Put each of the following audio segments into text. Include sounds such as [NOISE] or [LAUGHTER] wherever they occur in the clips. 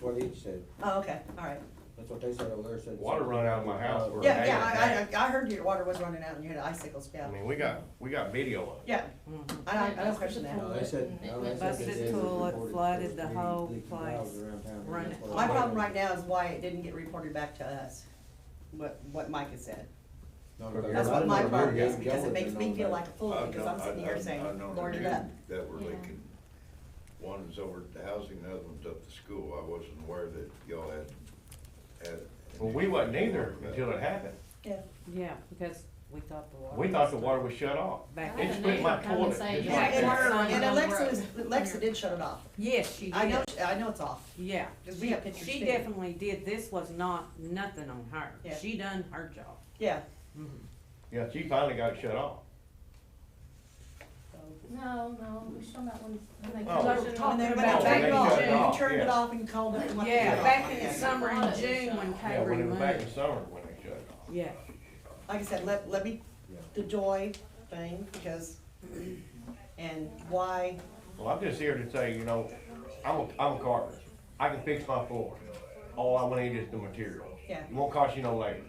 what he said, Oh, okay, all right. that's what they said over there, said. Water run out of my house for- Yeah, Hey, yeah, I, I, I heard your water was running out and you had icicles, yeah. I mean, we got, we got video of it. Yeah, Mm-hmm. I don't, I don't question that. No, they said, no, they said. Busted they said it tool, it reported flooded first the leak- whole leaking place. valves around town, and Run that's it. what My it was. problem right now is why it didn't get reported back to us, what, what Mike has said. No, That's because That's I what my know problem you're is, because it going makes to me know feel that. like a fool, I've because known- I'm sitting here I've- saying, I've known Lord, it two up. That were Yeah. leaking, one is over at the housing, the other one's up the school, I wasn't aware that y'all had, had. an Well, we issue wasn't with either water. until it happened. Yeah, Yeah, because we thought the water. We thought the water was shut off. Back. It's quit my toilet. It's Yeah, like and- that. and Alexa, was- Alexa did shut it off. Yes, she I know, did, she- I know it's off, yeah. because we have pictures She too. definitely did, this was not, nothing on her, Yeah. she done her job. Yeah. Yeah, she finally got it shut off. No, no, we're still not when, when they. Oh. come. We're And talking then when about they back turned it They off, shut it you off, turned it yeah. off and called it. and wanted to get it Yeah, off. back in Yeah. the summer in June when Yeah, Kay when it was back removed, in summer when they shut it off. yeah. Like I said, let, let me, Yeah. the joy thing, because, and why, Well, I'm just here to say, you know, I'm a, I'm a carpenter. I can fix my floor. All I want is the material. Yeah. It won't cost you no labor.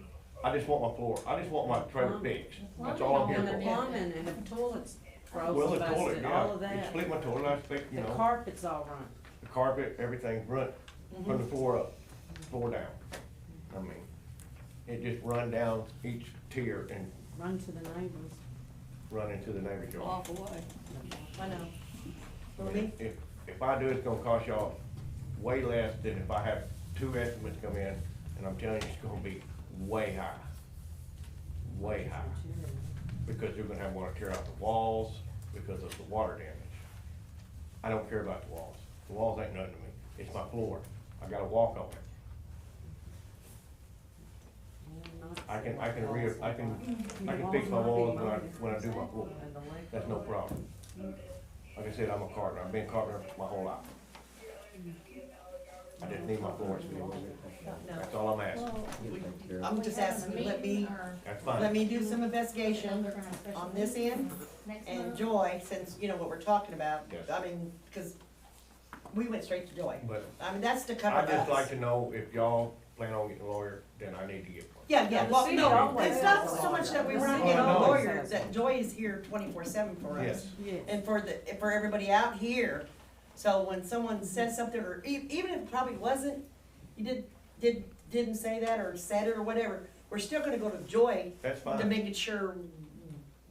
I just want my floor. I just want my trailer fixed. That's all I'm here And the for. plumbing and the toilets Well, froze the toilet, busted, all of yeah. It that. split my toilet. I fixed, you The know, carpet's all run. the carpet, everything's run from the floor up, floor down. I mean, it just run down each tier and run to the neighbors. run into the neighbor's yard. away. I know. I For mean, me, If, if I do, it's gonna cost y'all way less than if I have two estimates come in, and I'm telling you, it's gonna be way high. Way high, because you're gonna have water tear out the walls because of the water damage. I don't care about the walls, the walls ain't nothing to me, it's my floor, I gotta walk on it, I can- I can re- I can- I can fix my walls when I, when I do my floor, that's no problem. Like I said, I'm a carpenter, I've been carpenter my whole life. I just need my floors to be moving, that's all I'm asking. Well, Get it taken care of. I'm just we have a asking, let me, meeting or- That's let fine. me do some They're investigation gonna have special on this meeting end, next and month. Joy, since you know what we're talking about, Yes. I mean, cause we went straight to Joy. But I mean, that's to cover I'd us. just like to know if y'all plan on getting a lawyer, then I need to get one. Yeah, yeah, The well, city no, always it's not has a so much that we lawyer. were not The getting city a always lawyer, has that Joy is here twenty-four seven for us. Yes. Yes, and for the, for everybody out here. So when someone says something, or e- even if it probably wasn't, you did, did, didn't say that or said it or whatever, we're still gonna go to Joy That's to fine. make it sure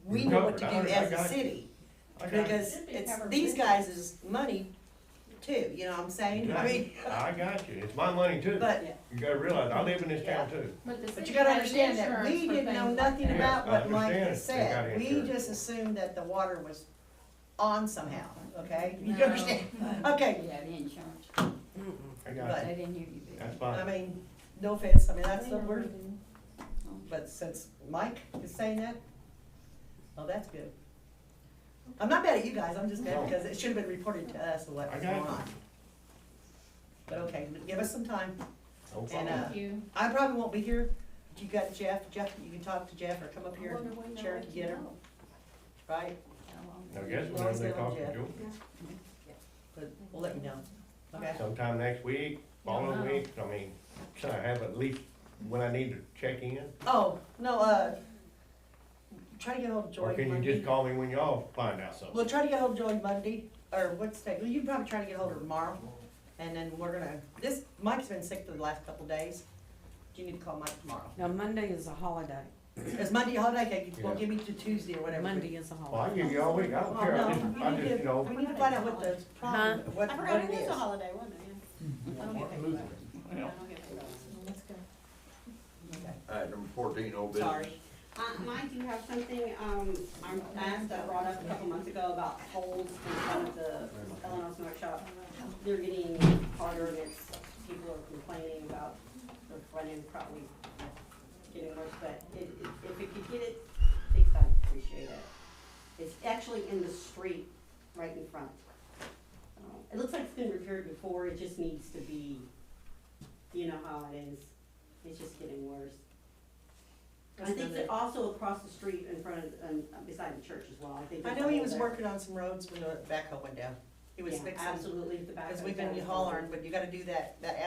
we know what to Covered, do I- I as a got it. city. I got you. Because it's these guys' is money too, you know what I'm saying? I mean, I got you. It's my money [LAUGHS] too. but, You gotta realize, I live in this town too. But the but city you gotta has understand that insurance we for didn't know things like nothing that. Yeah, about I what Mike had understand. They said. got We insurance. just assumed that the water was on somehow, okay? You No. understand? [LAUGHS] Okay, Yeah, the insurance, mm-mm. I got you. they didn't hear you. Bill. That's I fine. mean, no offense, I mean, that's the word, Oh. but since Mike is saying that, oh, that's good. I'm not mad at you guys, I'm just mad because it should have been reported to us what I was got going you. on. But okay, give us some time. No And, problem. uh, Thank you. I probably won't be here. You got Jeff, Jeff, you can talk to Jeff or come up I here wonder when and they'll chair let you get him, know. right? How long Now, they- guess whenever they talk to Joe, But we'll let you know, okay? sometime next week, Uh-huh. following week, I mean, should I have at least when I need to check in? Oh, no, uh, try to get hold of Joy Or can you Monday. just call me when y'all find out something? We'll try to get hold of Joy Monday, or what's today, well, you can probably try to get hold of her tomorrow, and then we're gonna, this, Mike's been sick for the last couple days. Do you need to call Mike tomorrow? Now, Monday is a holiday, Is Monday a holiday, okay, well, Yeah. give me to Tuesday or whatever. Oh, Monday is a Well, I holiday. give you all week. I don't care. I just, I just, you know, We need to find out what the problem, what, I what forgot it it was is. a holiday, wasn't it? I don't get paid for that. I don't get paid for that. Let's go. Okay. All right, number fourteen, old business. Sorry, Uh, Mike, you have something, um, I'm asked, I brought up a couple months ago about holes in front of the Illinois smoke shop. They're getting harder and it's, people are complaining about the front end probably getting worse, but it, it, if it could get it fixed, I'd appreciate it. It's actually in the street, right in front. Uh, It looks like it's been repaired before, it just needs to be, you know how it is, it's just getting worse. I That's think another- that also across the street in front of, um, beside the church as well, I think. I there's know a he hole was there. working on some roads when the backhoe went down. He was Yeah, fixing, Absolutely, the back. cause of we've been that is- hollering, but you gotta do that, that